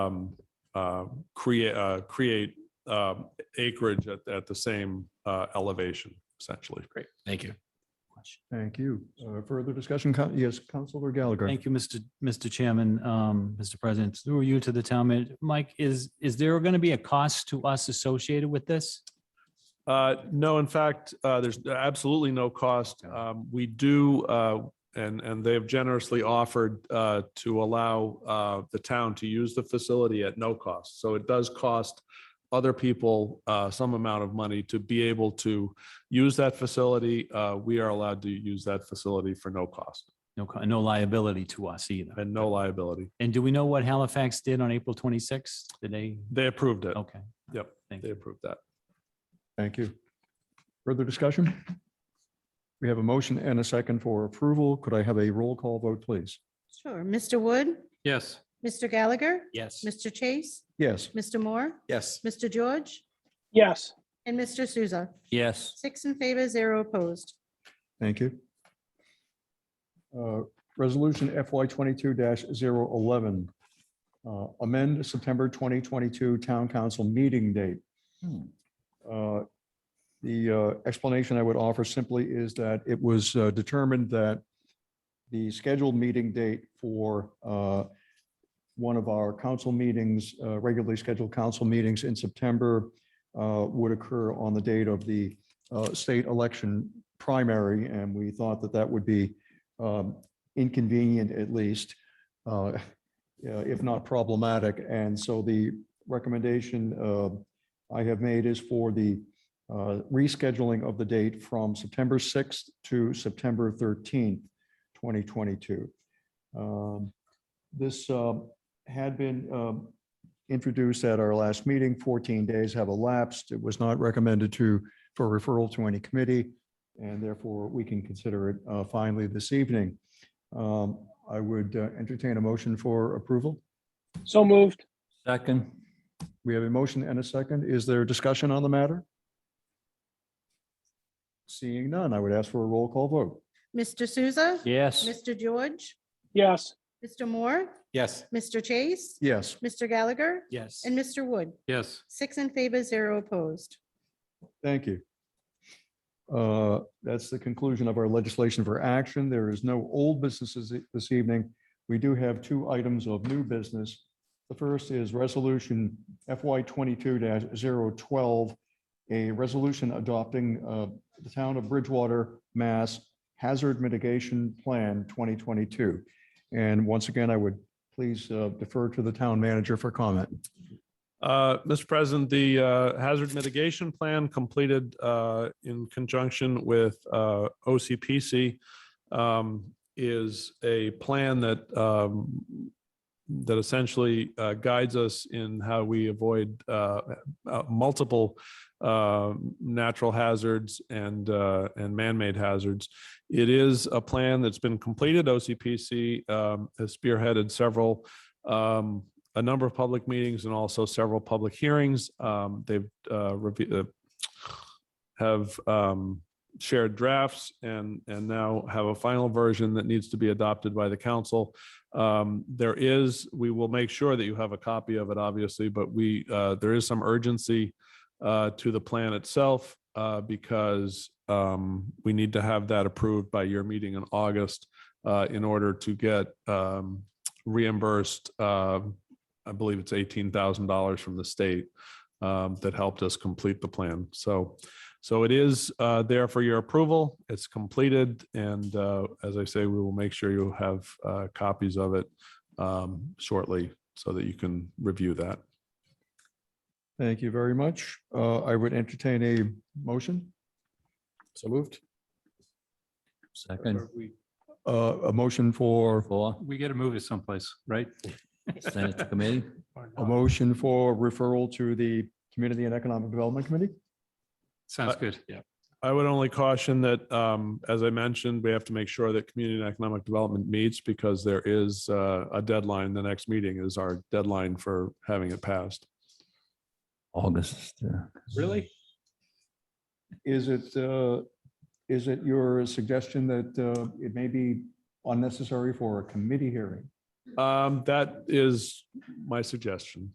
um, uh, create, uh, create um, acreage at, at the same uh, elevation essentially. Great. Thank you. Thank you. Uh, Further discussion? Coun- Yes, Counselor Gallagher. Thank you, Mr. Mr. Chairman, um, Mr. President, through you to the town manager. Mike, is, is there going to be a cost to us associated with this? Uh, No, in fact, uh, there's absolutely no cost. Um, We do, uh, and, and they have generously offered uh, to allow uh, the town to use the facility at no cost. So it does cost other people uh, some amount of money to be able to use that facility. Uh, We are allowed to use that facility for no cost No, co- no liability to us either. and no liability. And do we know what Halifax did on April twenty-sixth? Did they? They approved it. Okay. Yep, Thank They you. approved that. Thank you. Further discussion? We have a motion and a second for approval. Could I have a roll call vote, please? Sure. Mr. Wood, Yes. Mr. Gallagher, Yes. Mr. Chase, Yes, Mr. Moore, Yes. Mr. George, Yes, and Mr. Souza. Yes. Six in favor, zero opposed. thank you. Uh, Resolution FY twenty-two 11 Uh, amend September twenty twenty-two town council meeting date. Uh, The uh, explanation I would offer simply is that it was uh, determined that the scheduled meeting date for uh, one of our council meetings, uh, regularly scheduled council meetings in September uh, would occur on the date of the uh, state election primary, and we thought that that would be um, inconvenient at least, uh, yeah, if not problematic. And so the recommendation uh, I have made is for the uh, rescheduling of the date from September 6th to September 13th, 2022. Um, This uh, had been um, introduced at our last meeting. 14 days have elapsed. It was not recommended to, for referral to any committee, and therefore we can consider it uh, finally this evening. Um, I would uh, entertain a motion for approval. so moved. Second. We have a motion and a second. Is there discussion on the matter? Seeing none, I would ask for a roll call vote. Mr. Souza. Yes. Mr. George, Yes, Mr. Moore, Yes. Mr. Chase, Yes, Mr. Gallagher, Yes. and Mr. Wood. Yes. Six in favor, zero opposed. thank you. Uh, That's the conclusion of our legislation for action. There is no old businesses this evening. We do have two items of new business. The first is Resolution FY twenty-two 12 a resolution adopting uh, the Town of Bridgewater, Mass Hazard Mitigation Plan twenty twenty-two. And once again, I would please uh, defer to the town manager for comment. Uh, Mr. President, the uh, hazard mitigation plan completed uh, in conjunction with uh, OCPC um, is a plan that um, that essentially uh, guides us in how we avoid uh, uh, multiple uh, natural hazards and uh, and man-made hazards. It is a plan that's been completed. OCPC um, has spearheaded several um, a number of public meetings and also several public hearings. Um, They've uh, reve- uh, have um, shared drafts and, and now have a final version that needs to be adopted by the council. Um, There is, we will make sure that you have a copy of it, obviously, but we, uh, there is some urgency uh, to the plan itself uh, because um, we need to have that approved by your meeting in August uh, in order to get um, reimbursed, uh, I believe it's eighteen thousand dollars from the state um, that helped us complete the plan. So, so it is uh, there for your approval. It's completed, and uh, as I say, we will make sure you have uh, copies of it um, shortly so that you can review that. Thank you very much. Uh, I would entertain a motion. So moved. Second. Uh, a motion for, Four. We got to move it someplace, right? Send it to committee. a motion for referral to the Community and Economic Development Committee? Sounds Uh, good. Yeah. I would only caution that, um, as I mentioned, we have to make sure that community and economic development meets because there is uh, a deadline. The next meeting is our deadline for having it passed. August. uh, Really? Is it, uh, is it your suggestion that, uh, it may be unnecessary for a committee hearing? Um, That is my suggestion.